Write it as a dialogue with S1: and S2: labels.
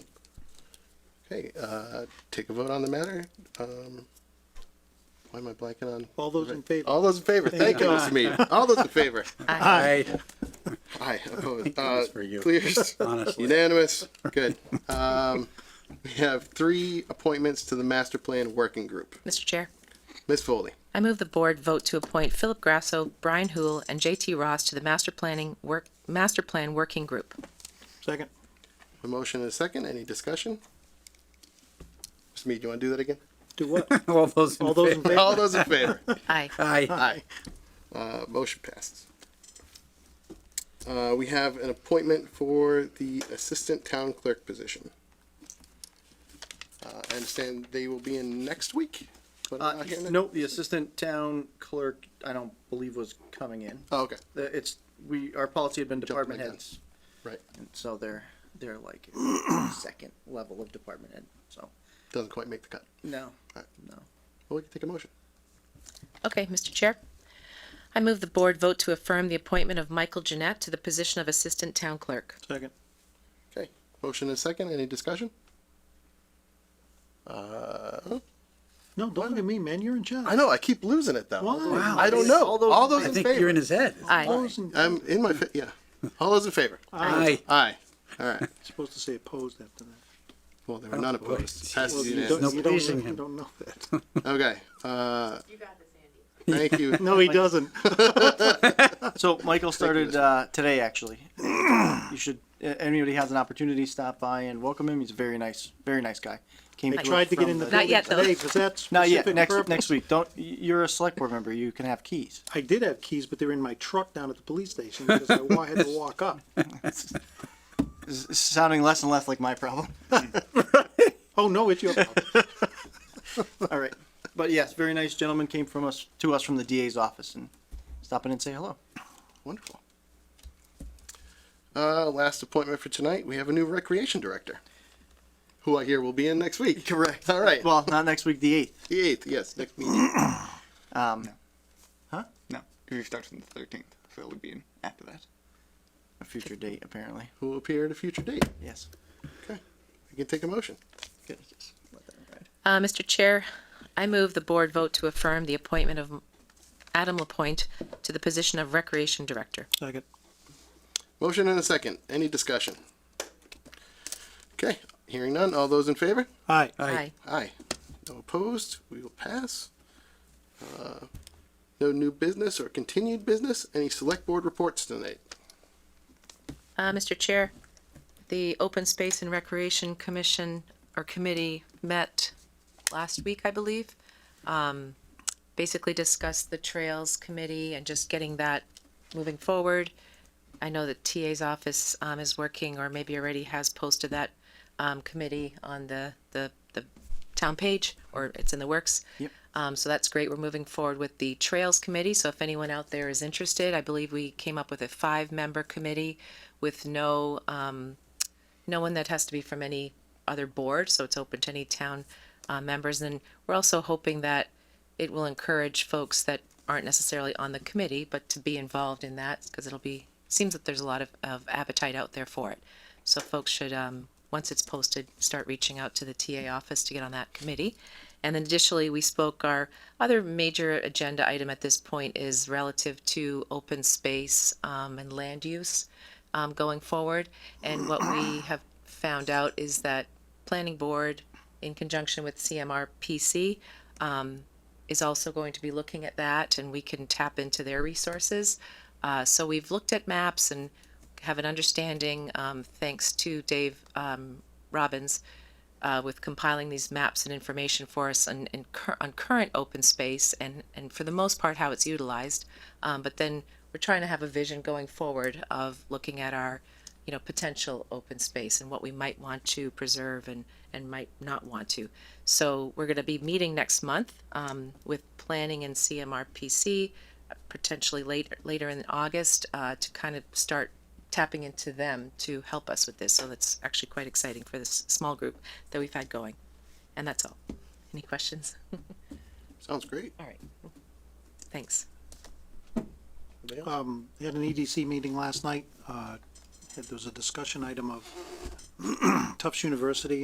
S1: Okay, uh, take a vote on the matter. Um, Why am I blanking on?
S2: All those in favor?
S1: All those in favor, thank you, Mr. Mead. All those in favor.
S3: Aye.
S1: Aye, opposed.
S3: was
S1: Uh,
S3: for you.
S1: Clears.
S3: Honestly.
S1: Unanimous, good. Um, We have three appointments to the master plan working group.
S4: Mr. Chair,
S1: Ms. Foley,
S4: I move the board vote to appoint Philip Grasso, Brian Hool, and JT Ross to the Master Planning Work, Master Plan Working Group.
S2: Second.
S1: a motion and a second, any discussion? Mr. Mead, you want to do that again?
S2: Do what?
S3: All those in
S2: All those in
S3: favor?
S1: All
S2: favor?
S1: those in favor?
S4: Aye.
S3: Aye.
S1: Aye. Uh, motion passes. Uh, we have an appointment for the assistant town clerk position. Uh, I understand they will be in next week, but I'm
S5: Uh,
S1: not hearing it.
S5: nope, the assistant town clerk, I don't believe was coming in.
S1: Oh, okay,
S5: The- It's, we, our policy had been
S1: Jumping
S5: department
S1: the gun.
S5: heads.
S1: right,
S5: And so they're, they're like second level of department head, so,
S1: doesn't quite make the cut.
S5: no,
S1: All right.
S5: no.
S1: Well, we can take a motion.
S4: Okay, Mr. Chair, I move the board vote to affirm the appointment of Michael Jeanette to the position of Assistant Town Clerk.
S2: Second.
S1: Okay, motion and second, any discussion? Uh,
S2: No, don't look at me, man, you're in charge.
S1: I know, I keep losing it though.
S2: Why?
S1: I don't know, all those
S3: I
S1: in
S3: think you're in
S1: favor.
S3: his head.
S4: Aye.
S2: Opposed and-
S1: I'm in my, fa- yeah, all those in favor?
S3: Aye.
S1: Aye, all right,
S2: Supposed to say opposed after that.
S1: well, they were none
S3: boy.
S1: opposed. Passes
S2: Well, you
S1: unanimously.
S2: don't-
S3: no
S2: you don't-
S3: pleasing him.
S2: You don't know that.
S1: Okay, uh. You got this, Andy. Thank you.
S2: No, he doesn't.
S5: So Michael started uh, today, actually. You should, uh, anybody has an opportunity, stop by and welcome him. He's a very nice, very nice guy. Came
S2: They
S5: us
S2: tried to get
S5: from
S2: in the
S4: Not
S2: building
S4: yet, though.
S2: today, because that's
S5: Not yet.
S2: specific
S5: Next,
S2: purpose.
S5: next week. Don't. y- You're a select board member. You can have keys.
S2: I did have keys, but they were in my truck down at the police station, because I wa- had to walk up.
S5: This is sounding less and less like my problem.
S2: Oh, no, it's your problem.
S5: All right. But yes, very nice gentleman came from us to us from the DA's office and stop in and say hello.
S1: Wonderful. Uh, last appointment for tonight, we have a new recreation director, who I hear will be in next week. Correct. All right,
S5: Well, not next week, the eighth.
S1: the eighth, yes, next meeting.
S5: Um,
S6: No, because we start on the thirteenth, so it would be in after that.
S5: a future date apparently.
S1: Who will appear at a future date?
S5: Yes.
S1: We can take a motion.
S5: Good. Just let that ride.
S4: Uh, Mr. Chair, I move the board vote to affirm the appointment of Adam Lapointe to the position of Recreation Director.
S2: Second.
S1: Motion and a second. Any discussion? Okay, hearing none. All those in favor?
S2: Aye.
S4: Aye.
S1: Aye. No opposed. We will pass. Uh, No new business or continued business. Any select board reports tonight?
S4: Uh, Mr. Chair, the Open Space and Recreation Commission or Committee met last week, I believe. Um, basically discussed the Trails Committee and just getting that moving forward. I know that TA's office, um, is working or maybe already has posted that, um, committee on the, the, the town page or it's in the works.
S5: Yep.
S4: Um, so that's great. We're moving forward with the Trails Committee. So if anyone out there is interested, I believe we came up with a five-member committee with no, um, no one that has to be from any other board, so it's open to any town uh, members. And we're also hoping that it will encourage folks that aren't necessarily on the committee, but to be involved in that, because it'll be, seems that there's a lot of, of appetite out there for it. So folks should, um, once it's posted, start reaching out to the TA office to get on that committee. And then additionally, we spoke, our other major agenda item at this point is relative to open space, um, and land use um, going forward. And what we have found out is that planning board, in conjunction with CMRPC, um, is also going to be looking at that, and we can tap into their resources. Uh, so we've looked at maps and have an understanding, um, thanks to Dave um, Robbins, uh, with compiling these maps and information for us on, in cur- on current open space and, and for the most part how it's utilized. Um, but then we're trying to have a vision going forward of looking at our, you know, potential open space and what we might want to preserve and, and might not want to. So we're going to be meeting next month um, with planning and CMRPC, uh, potentially later later in August, uh, to kind of start tapping into them to help us with this. So that's actually quite exciting for this small group that we've had going. And that's all. Any questions?
S1: Sounds great.
S4: All right. Thanks.
S2: Um, we had an EDC meeting last night. Uh, had- there was a discussion item of Tufts University